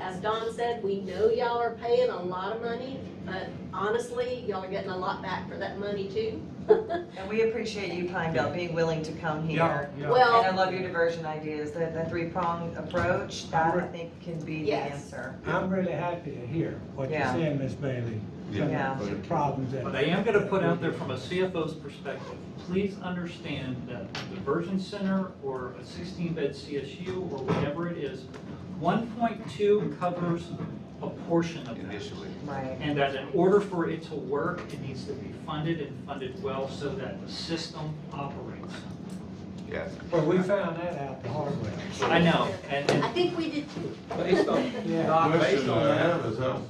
as Don said, we know y'all are paying a lot of money, but honestly, y'all are getting a lot back for that money too. And we appreciate you, Pine Belt, being willing to come Yeah, here. yeah. Well- And I love your diversion ideas, the, the three-prong approach, that I Right. think can be the Yes. answer. I'm really happy to hear what you're Yeah. saying, Ms. Bailey. Yeah. Yeah. Some Problems that. But I am gonna put out there from a CFO's perspective, please understand that the Virgin Center or a sixteen bed CSU or whatever it is, one point two covers a portion of that. initially. Right. And that in order for it to work, it needs to be funded and funded well so that the system operates. Yes. Well, we found that out the hard way. I know, and, and I think we did too. Based on, Yeah. Doc, based Question on I that, have is how,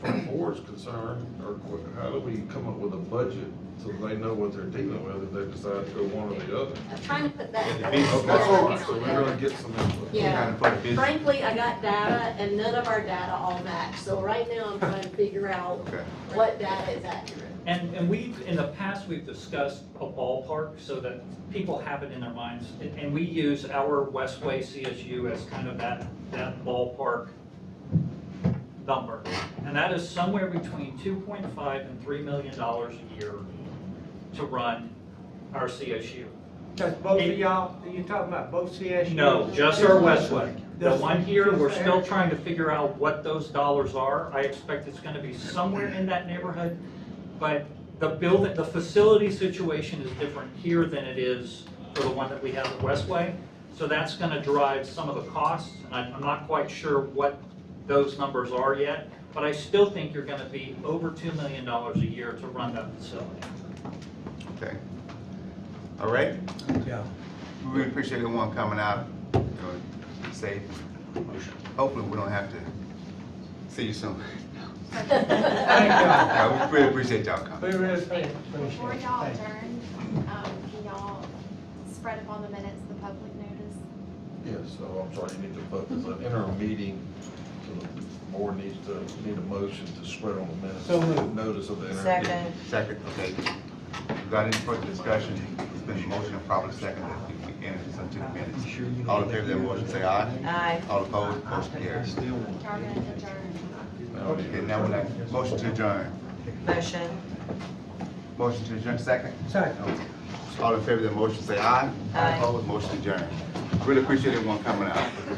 from board's concerned, or qu- how do we come up with a budget so they know what they're dealing with if they decide to go one or the other? I'm trying to put that. Yeah, the business Okay, That's all right, so we're gonna get some input. Yeah. Kind of put a business- Frankly, I got data and none of our data all match, so right now I'm trying to figure out Okay. what data is accurate. And, and we've, in the past, we've discussed a ballpark so that people have it in their minds. And- And we use our Westway CSU as kind of that, that ballpark number. And that is somewhere between 2.5 and 3 million dollars a year to run our CSU. That's both of y'all, you talking about both CSU? No, just our Westway. The This- one here, we're this still area? trying to figure out what those dollars are. I expect it's gonna be somewhere in that neighborhood. But the building, the facility situation is different here than it is for the one that we have at Westway. So that's gonna drive some of the costs, and I- I'm not quite sure what those numbers are yet. But I still think you're gonna be over two million dollars a year to run that facility. Okay. All right, Yeah. we really appreciate everyone coming out, you know, safe. Hopefully, we don't have to see you soon. Thank Yeah, We really appreciate y'all coming. y'all. We really appreciate it. Before Thank Before you. y'all adjourn, um, can y'all spread upon the minutes the public notice? Yeah, so I'm sorry, you need to put, there's an interim meeting, so the board needs to, need a motion to spread on the minutes. So moved. Notice of the interim. meeting. Second, Second, okay. Without any further discussion, it's been a motion and probably second that we can enter this into the minutes. All in favor of that motion, say aye. aye. All opposed, motion carries. Y'all gonna adjourn? Now we need to- Okay, now we're like, motion to adjourn. Motion, Motion to adjourn, second? Second. Okay. All in favor of that motion, say aye. Aye. All opposed, motion adjourned. Really appreciate everyone coming out.